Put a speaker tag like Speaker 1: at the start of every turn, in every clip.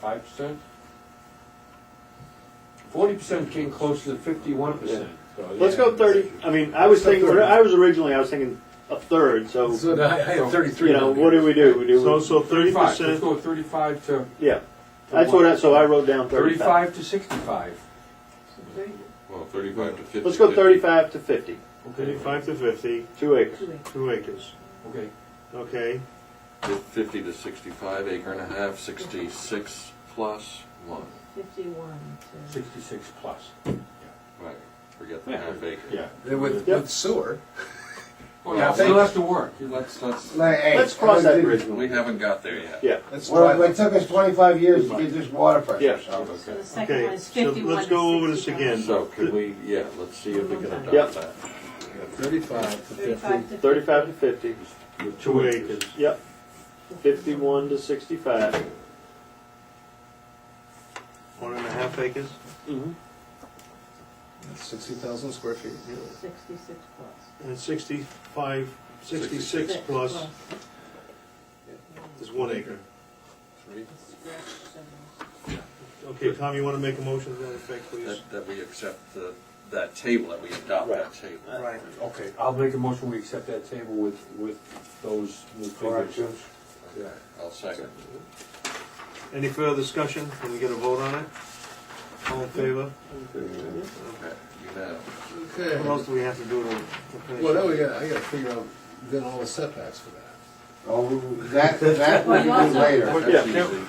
Speaker 1: five percent? Forty percent came close to fifty-one percent.
Speaker 2: Let's go thirty, I mean, I was
Speaker 3: Let's go
Speaker 2: thinking,
Speaker 3: 30.
Speaker 2: I was originally, I was thinking a third, so,
Speaker 3: So,
Speaker 1: I I had thirty-three.
Speaker 2: you know,
Speaker 1: down
Speaker 2: what
Speaker 1: here.
Speaker 2: do we do? We
Speaker 3: so,
Speaker 2: do,
Speaker 3: so thirty
Speaker 1: Thirty-five, let's
Speaker 3: percent,
Speaker 1: go thirty-five to,
Speaker 2: yeah, that's what, I- so I wrote down thirty-five.
Speaker 1: thirty-five to sixty-five.
Speaker 4: Well, thirty-five to fifty.
Speaker 2: Let's go thirty-five to fifty,
Speaker 3: thirty-five to fifty,
Speaker 2: two acres.
Speaker 3: two acres,
Speaker 1: Okay,
Speaker 3: okay?
Speaker 4: Fifty to sixty-five, acre and a half, sixty-six plus one.
Speaker 5: Fifty-one to.
Speaker 1: sixty-six plus.
Speaker 4: Right, forget the
Speaker 1: Yeah.
Speaker 4: half acre.
Speaker 3: Yeah.
Speaker 6: Then With,
Speaker 2: Yep.
Speaker 6: with sewer.
Speaker 1: Oh, Well,
Speaker 4: Yeah,
Speaker 1: you still have to work. You let-
Speaker 4: Let's, let's,
Speaker 2: Let's cross that bridge. when
Speaker 4: we
Speaker 2: we-
Speaker 4: haven't got there yet.
Speaker 2: Yeah,
Speaker 6: That's
Speaker 7: Well,
Speaker 6: why,
Speaker 7: it took us twenty-five years to get this water
Speaker 2: Yeah.
Speaker 7: pressure, so.
Speaker 5: So
Speaker 4: Okay.
Speaker 5: the second one
Speaker 3: Okay,
Speaker 5: is
Speaker 3: so
Speaker 5: fifty-one
Speaker 3: let's go over this again.
Speaker 4: So could we, yeah, let's see if we can
Speaker 2: Yep.
Speaker 4: adopt that.
Speaker 6: thirty-five to fifty.
Speaker 5: Thirty-five to.
Speaker 2: thirty-five to fifty,
Speaker 1: with
Speaker 3: Two acres.
Speaker 2: yep, fifty-one to sixty-five.
Speaker 3: One and a half acres?
Speaker 2: Mhm.
Speaker 6: That's sixty thousand square feet.
Speaker 5: Sixty-six plus.
Speaker 3: And sixty-five, sixty-six
Speaker 5: Six
Speaker 3: plus is one acre.
Speaker 6: Three.
Speaker 3: Okay, Tom, you wanna make a motion to that effect, please?
Speaker 4: That, that we accept the, that table, that we adopt that
Speaker 2: Right.
Speaker 4: table.
Speaker 3: Right.
Speaker 1: Okay, I'll make a motion, we accept that table with, with those new figures.
Speaker 7: Corrections.
Speaker 4: Okay, I'll second.
Speaker 3: Any further discussion? Can we get a vote on it? All in favor?
Speaker 4: Okay, you know.
Speaker 6: Okay.
Speaker 3: What else do we have to do to? finish
Speaker 6: Well, now
Speaker 3: it?
Speaker 6: we got, I gotta figure out then all the setbacks for that.
Speaker 7: Oh, we- that, that we
Speaker 5: Well,
Speaker 7: can
Speaker 5: you
Speaker 7: do
Speaker 5: also-
Speaker 7: later.
Speaker 4: That's
Speaker 2: Yeah.
Speaker 4: easy.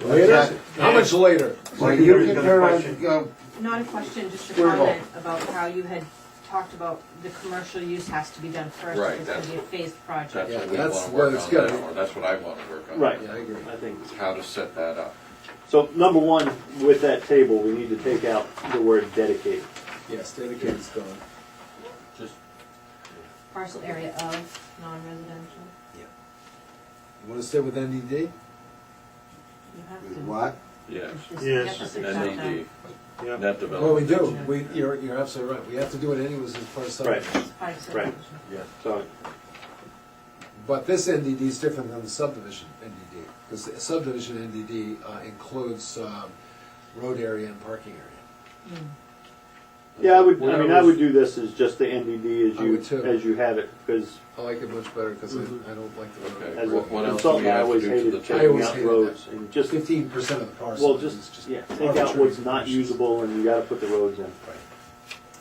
Speaker 7: Later?
Speaker 6: How much later?
Speaker 7: So you
Speaker 3: Everybody's
Speaker 7: can
Speaker 3: got a
Speaker 7: turn around
Speaker 3: question.
Speaker 7: and go,
Speaker 5: Not a question, just a
Speaker 7: Sure.
Speaker 5: comment about how you had talked about the commercial use has to be done first.
Speaker 4: Right,
Speaker 5: It's gonna be a phased project.
Speaker 4: That's
Speaker 6: Yeah,
Speaker 4: what we
Speaker 6: that's
Speaker 4: wanna
Speaker 6: what
Speaker 4: work
Speaker 6: it's
Speaker 4: on,
Speaker 6: gotta
Speaker 4: that
Speaker 6: be.
Speaker 4: one. that's what I wanna work on.
Speaker 2: Right.
Speaker 6: Yeah, I agree.
Speaker 2: I think.
Speaker 4: How to set that up.
Speaker 2: So number one, with that table, we need to take out the word dedicated.
Speaker 6: Yes, dedicated's gone.
Speaker 1: Just
Speaker 5: Parcel area of non-residential.
Speaker 6: You wanna stay with NDD?
Speaker 5: You have to.
Speaker 7: what?
Speaker 4: Yes.
Speaker 5: Just
Speaker 3: Yes,
Speaker 5: get this exact
Speaker 4: NAD,
Speaker 3: Yeah.
Speaker 4: net
Speaker 6: Well, we
Speaker 4: development.
Speaker 6: do. We, you're, you're absolutely right. We have to do it anyways as part of subdivision.
Speaker 5: down. Five
Speaker 2: Right.
Speaker 5: subdivision.
Speaker 2: So,
Speaker 6: But this NDD is different than the subdivision NDD, because the subdivision NDD uh, includes um, road area and parking area.
Speaker 2: yeah, I would, I
Speaker 1: Well,
Speaker 2: mean,
Speaker 1: that
Speaker 2: I
Speaker 1: was-
Speaker 2: would do this as just the NDD as
Speaker 6: I would
Speaker 2: you,
Speaker 6: too.
Speaker 2: as you have it, because
Speaker 6: I like it much better because I I don't like the road
Speaker 4: Okay.
Speaker 6: area.
Speaker 2: as a
Speaker 4: What- what else do we
Speaker 2: consultant, I
Speaker 4: have to
Speaker 2: always
Speaker 4: do to
Speaker 2: hated
Speaker 4: the
Speaker 6: table?
Speaker 2: checking
Speaker 6: I always
Speaker 2: out
Speaker 6: hated
Speaker 2: roads and just,
Speaker 6: Fifteen percent of the parcel.
Speaker 2: well,
Speaker 6: is
Speaker 2: just, yeah, take out
Speaker 6: arbitrary
Speaker 2: what's not
Speaker 6: conditions.
Speaker 2: usable and you gotta put the roads in.
Speaker 6: Right.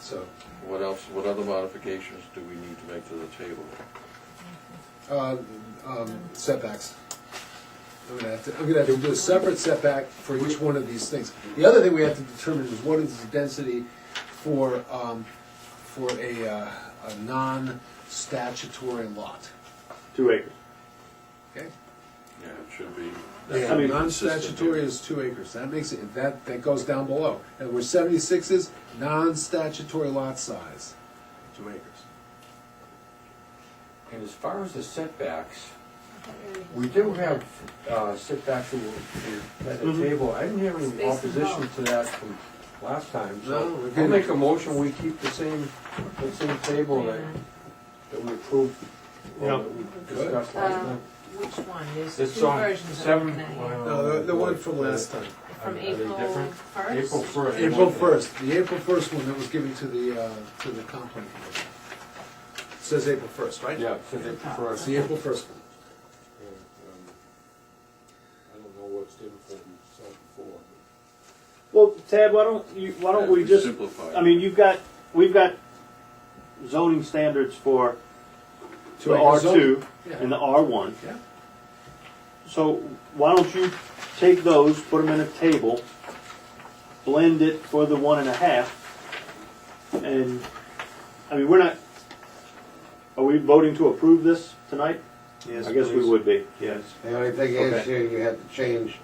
Speaker 6: So,
Speaker 4: What else, what other modifications do we need to make to the table?
Speaker 6: uh, um, setbacks. I'm gonna have to, I'm gonna have to do a separate setback for each one of these things. The other thing we have to determine is what is the density for, um, for a, uh, a non-statutory lot,
Speaker 2: Two acres.
Speaker 6: okay?
Speaker 4: Yeah, it should be.
Speaker 2: I mean-
Speaker 6: Non-statutory is two acres, that makes it, that, that goes down below. And we're seventy-six is non-statutory lot size, two acres.
Speaker 1: And as far as the setbacks, we do have uh, setbacks in- in- at the
Speaker 6: Mm-hmm.
Speaker 1: table. I didn't have any
Speaker 5: Space and
Speaker 1: opposition
Speaker 5: bulk.
Speaker 1: to that from last time,
Speaker 6: No, we
Speaker 1: so I'll
Speaker 6: didn't.
Speaker 1: make a motion, we keep the same, the same table that, that we approved,
Speaker 3: Yeah.
Speaker 1: or that we discussed last
Speaker 5: Uh,
Speaker 1: time.
Speaker 5: Which one? There's two
Speaker 1: It's on
Speaker 5: versions of
Speaker 1: seven- uh,
Speaker 5: it now.
Speaker 6: No, the, the one from last time.
Speaker 5: From
Speaker 1: Are they
Speaker 5: April
Speaker 1: different? April
Speaker 5: first.
Speaker 1: first.
Speaker 6: April first, the April first one that was given to the, uh, to the complaint commission. It Says April first, right?
Speaker 1: Yeah, it says April
Speaker 6: It's
Speaker 1: first.
Speaker 6: the April first one.
Speaker 1: And, um, I don't know what's different from said before.
Speaker 2: Well, Ted, why don't you, why don't we just,
Speaker 4: Simplify.
Speaker 2: I mean, you've got, we've got zoning standards for
Speaker 6: Two
Speaker 2: the R
Speaker 6: acres
Speaker 2: two
Speaker 6: Yeah.
Speaker 2: and the R one.
Speaker 6: Yeah.
Speaker 2: So why don't you take those, put them in a table, blend it for the one and a half, and, I mean, we're not, are we voting to approve this tonight?
Speaker 3: Yes,
Speaker 2: I guess we
Speaker 3: please.
Speaker 2: would be, yes.
Speaker 7: The only thing is,
Speaker 2: Okay.
Speaker 7: here you have to change,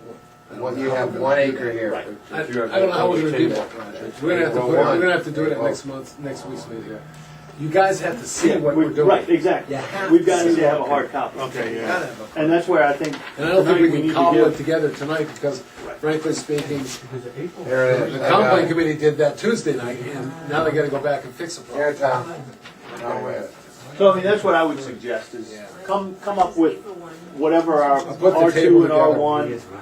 Speaker 6: I don't
Speaker 7: what
Speaker 6: know
Speaker 7: you
Speaker 6: how
Speaker 7: have
Speaker 6: we're
Speaker 7: one
Speaker 6: gonna do
Speaker 7: acre here.
Speaker 2: Right.
Speaker 6: I I don't know how we're gonna do that, Roger. We're gonna have to, put it- we're gonna have to do it at next month, next week's meeting. You guys have to see what
Speaker 2: We-
Speaker 6: we're doing.
Speaker 2: Right, exactly.
Speaker 6: You have
Speaker 2: We've
Speaker 6: to
Speaker 2: got to
Speaker 6: see.
Speaker 2: have a hard copy.
Speaker 3: Okay,
Speaker 6: You
Speaker 3: yeah.
Speaker 6: gotta have a-
Speaker 2: And that's where I think.
Speaker 6: And I don't think we
Speaker 2: tonight need
Speaker 6: can
Speaker 2: to
Speaker 6: cobble
Speaker 2: give-
Speaker 6: it together tonight, because frankly speaking,
Speaker 1: Because the April.
Speaker 7: Here it is.
Speaker 6: the
Speaker 7: I got
Speaker 6: complaint
Speaker 7: it.
Speaker 6: committee did that Tuesday night, and now they gotta go back and fix the
Speaker 7: Here,
Speaker 6: problem.
Speaker 7: Tom. No way.
Speaker 2: So I mean, that's what I would suggest is
Speaker 6: Yeah.
Speaker 2: come, come up with
Speaker 5: April one.
Speaker 2: whatever our
Speaker 6: I'll put the
Speaker 2: R2
Speaker 6: table
Speaker 2: and R1
Speaker 6: together.